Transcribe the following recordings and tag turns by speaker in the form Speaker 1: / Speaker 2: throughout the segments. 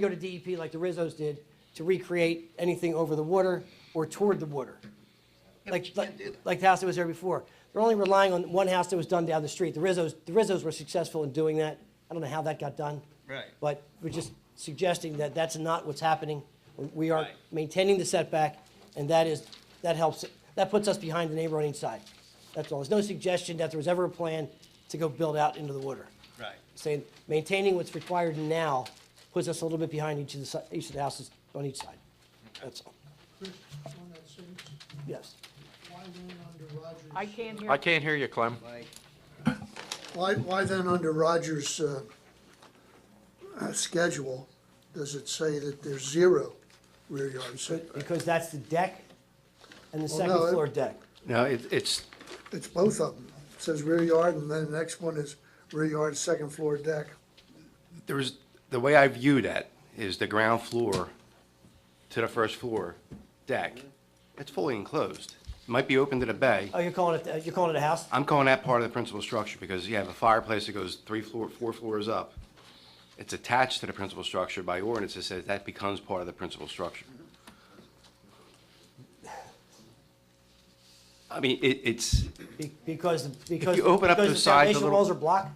Speaker 1: go to DEP like the Rizzos did to recreate anything over the water or toward the water. Like, like, like the house that was there before. They're only relying on one house that was done down the street. The Rizzos, the Rizzos were successful in doing that. I don't know how that got done.
Speaker 2: Right.
Speaker 1: But we're just suggesting that that's not what's happening. We are
Speaker 2: Right.
Speaker 1: maintaining the setback, and that is, that helps, that puts us behind the neighbor on each side. That's all. There's no suggestion that there was ever a plan to go build out into the water.
Speaker 2: Right.
Speaker 1: Saying, maintaining what's required now puts us a little bit behind each of the, si- each of the houses on each side. That's all.
Speaker 3: Chris, on that same,
Speaker 1: Yes.
Speaker 3: why then under Rogers?
Speaker 4: I can't hear.
Speaker 5: I can't hear you, Clem.
Speaker 3: Why, why then under Rogers' uh, uh, schedule, does it say that there's zero rear yard setback?
Speaker 1: Because that's the deck and the
Speaker 3: Well,
Speaker 1: second
Speaker 3: no, it-
Speaker 1: floor deck.
Speaker 5: No, it, it's,
Speaker 3: It's both of them. It says rear yard, and then the next one is rear yard, second floor deck.
Speaker 5: there's, the way I view that is the ground floor to the first floor deck, it's fully enclosed. Might be open to the bay.
Speaker 1: Oh, you're calling it, you're calling it a house?
Speaker 5: I'm calling that part of the principal structure because you have a fireplace that goes three floor, four floors up. It's attached to the principal structure by ordinance. It says that becomes part of the principal structure. I mean, it, it's,
Speaker 1: Be- Because, because.
Speaker 5: you open up
Speaker 1: because
Speaker 5: the sides a
Speaker 1: Foundation
Speaker 5: little-
Speaker 1: walls are blocked?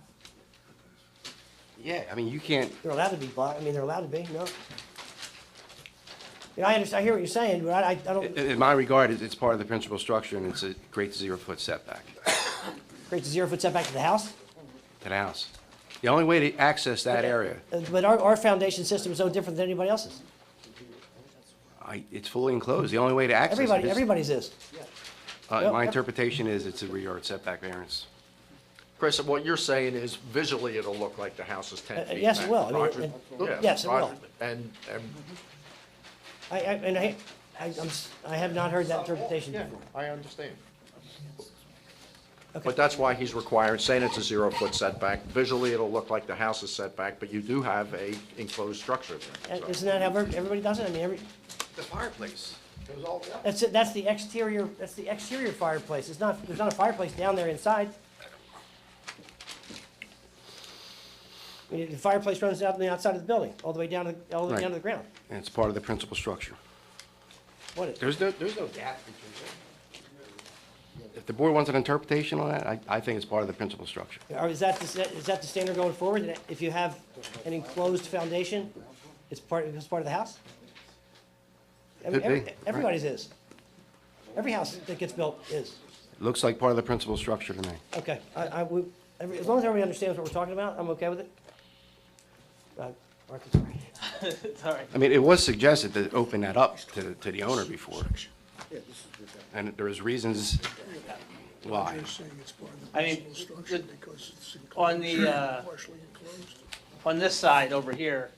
Speaker 5: yeah, I mean, you can't,
Speaker 1: They're allowed to be blocked, I mean, they're allowed to be, no? Yeah, I understand, I hear what you're saying, but I, I I
Speaker 5: i-
Speaker 1: don't,
Speaker 5: in my regard, it's- it's part of the principal structure and it's a great zero-foot setback.
Speaker 1: create a zero-foot setback to the house.
Speaker 5: to the house. The only way to access that area,
Speaker 1: Uh, But our, our foundation system is no different than anybody else's.
Speaker 5: I, it's fully enclosed, the only way to access it
Speaker 1: Everybody,
Speaker 5: is,
Speaker 1: everybody's is.
Speaker 5: uh, my
Speaker 1: yeah.
Speaker 5: interpretation is it's a rear yard setback variance.
Speaker 6: Chris, what you're saying is visually it'll look like the house is
Speaker 1: Uh,
Speaker 6: 10 feet
Speaker 1: yes, it
Speaker 6: back.
Speaker 1: will. I mean,
Speaker 6: Roger-
Speaker 1: and-
Speaker 6: yeah,
Speaker 1: yes, it
Speaker 6: Roger-
Speaker 1: will.
Speaker 6: And, and,
Speaker 1: I, I, and I, I, I'm, s- I have not heard that interpretation
Speaker 6: Oh, yeah,
Speaker 1: before.
Speaker 6: I understand.
Speaker 1: Okay.
Speaker 6: But that's why he's requiring, saying it's a zero-foot setback. Visually, it'll look like the house is setback, but you do have a enclosed structure there.
Speaker 1: Uh,
Speaker 6: so-
Speaker 1: Isn't that how every- everybody does it? I mean, every,
Speaker 5: The fireplace.
Speaker 1: that's, it- that's the exterior, that's the exterior fireplace. It's not, there's not a fireplace down there inside. I mean, the fireplace runs out on the outside of the building, all the way down, to the- all the way
Speaker 5: Right.
Speaker 1: down to the ground.
Speaker 5: And it's part of the principal structure.
Speaker 1: What is?
Speaker 5: There's no, there's no gap between them. If the board wants an interpretation on that, I, I think it's part of the principal structure.
Speaker 1: Or is that, the sta- is that the standard going forward, that if you have an enclosed foundation, it's part, it's part of the house? Every-
Speaker 5: Could be,
Speaker 1: every-
Speaker 5: right.
Speaker 1: Everybody's is. Every house that gets built is.
Speaker 5: It Looks like part of the principal structure to me.
Speaker 1: Okay, I, I, would- every- as long as everybody understands what we're talking about, I'm okay with it. Uh, Mark, I'm sorry.
Speaker 5: I mean, it was suggested to open that up to, to the owner before. And there is reasons why.
Speaker 3: They're saying it's part of the
Speaker 7: I mean,
Speaker 3: principal structure
Speaker 7: the-
Speaker 3: because it's
Speaker 7: on the, uh,
Speaker 3: enclosed, partially enclosed.
Speaker 7: On this side over here,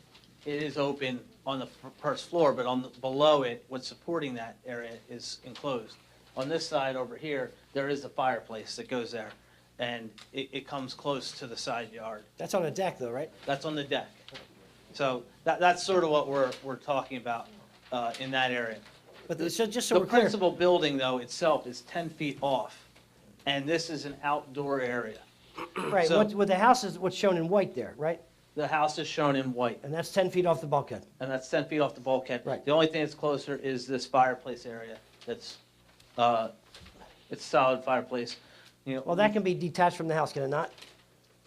Speaker 7: it is open on the fir- first floor, but on, the- below it, what's supporting that area is enclosed. On this side over here, there is a fireplace that goes there, and it, it comes close to the side yard.
Speaker 1: That's on a deck though, right?
Speaker 7: That's on the deck. So that, that's sort of what we're, we're talking about uh, in that area.
Speaker 1: But the- so, just so
Speaker 7: The
Speaker 1: we're clear,
Speaker 7: principal building, though, itself is 10 feet off, and this is an outdoor area.
Speaker 1: right,
Speaker 7: so-
Speaker 1: what, what the house is, what's shown in white there, right?
Speaker 7: The house is shown in white.
Speaker 1: And that's ten feet off the bulkhead.
Speaker 7: and that's ten feet off the bulkhead.
Speaker 1: Right.
Speaker 7: The only thing that's closer is this fireplace area that's, uh, it's solid fireplace, you know.
Speaker 1: Well, that can be detached from the house, can it not?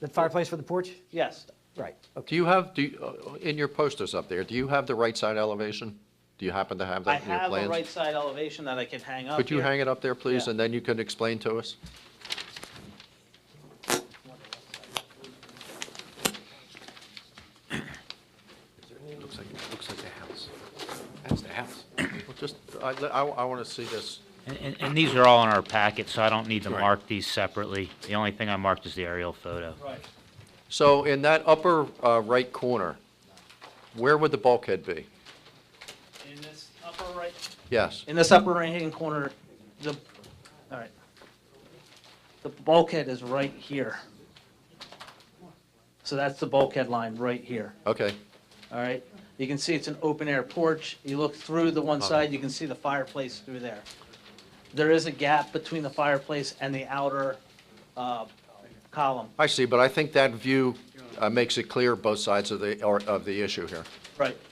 Speaker 1: The fireplace for the porch?
Speaker 7: Yes,
Speaker 1: Right, okay.
Speaker 6: Do you have, do, you- uh, in your posters up there, do you have the right side elevation? Do you happen to have
Speaker 7: I
Speaker 6: that in your
Speaker 7: have a
Speaker 6: plans?
Speaker 7: right side elevation that I can hang up
Speaker 6: Could you
Speaker 7: here.
Speaker 6: hang it up there, please,
Speaker 7: Yeah.
Speaker 6: and then you can explain to us?
Speaker 5: Looks like, looks like the house. That's the house.
Speaker 6: Well, Just, I, I want to see this.
Speaker 8: And- And, and these are all in our packet, so I don't need to
Speaker 5: Right.
Speaker 8: mark these separately. The only thing I marked is the aerial photo.
Speaker 7: Right,
Speaker 6: So in that upper uh, right corner, where would the bulkhead be?
Speaker 7: in this upper right,
Speaker 6: Yes.
Speaker 7: in this upper right-hand corner, the, all right. The bulkhead is right here. So that's the bulkhead line right here.
Speaker 6: Okay.
Speaker 7: All right, you can see it's an open-air porch. You look through the one side, you can see the fireplace through there. There is a gap between the fireplace and the outer uh, column.
Speaker 6: I see, but I think that view uh, makes it clear both sides of the, or- of the issue here.
Speaker 7: Right.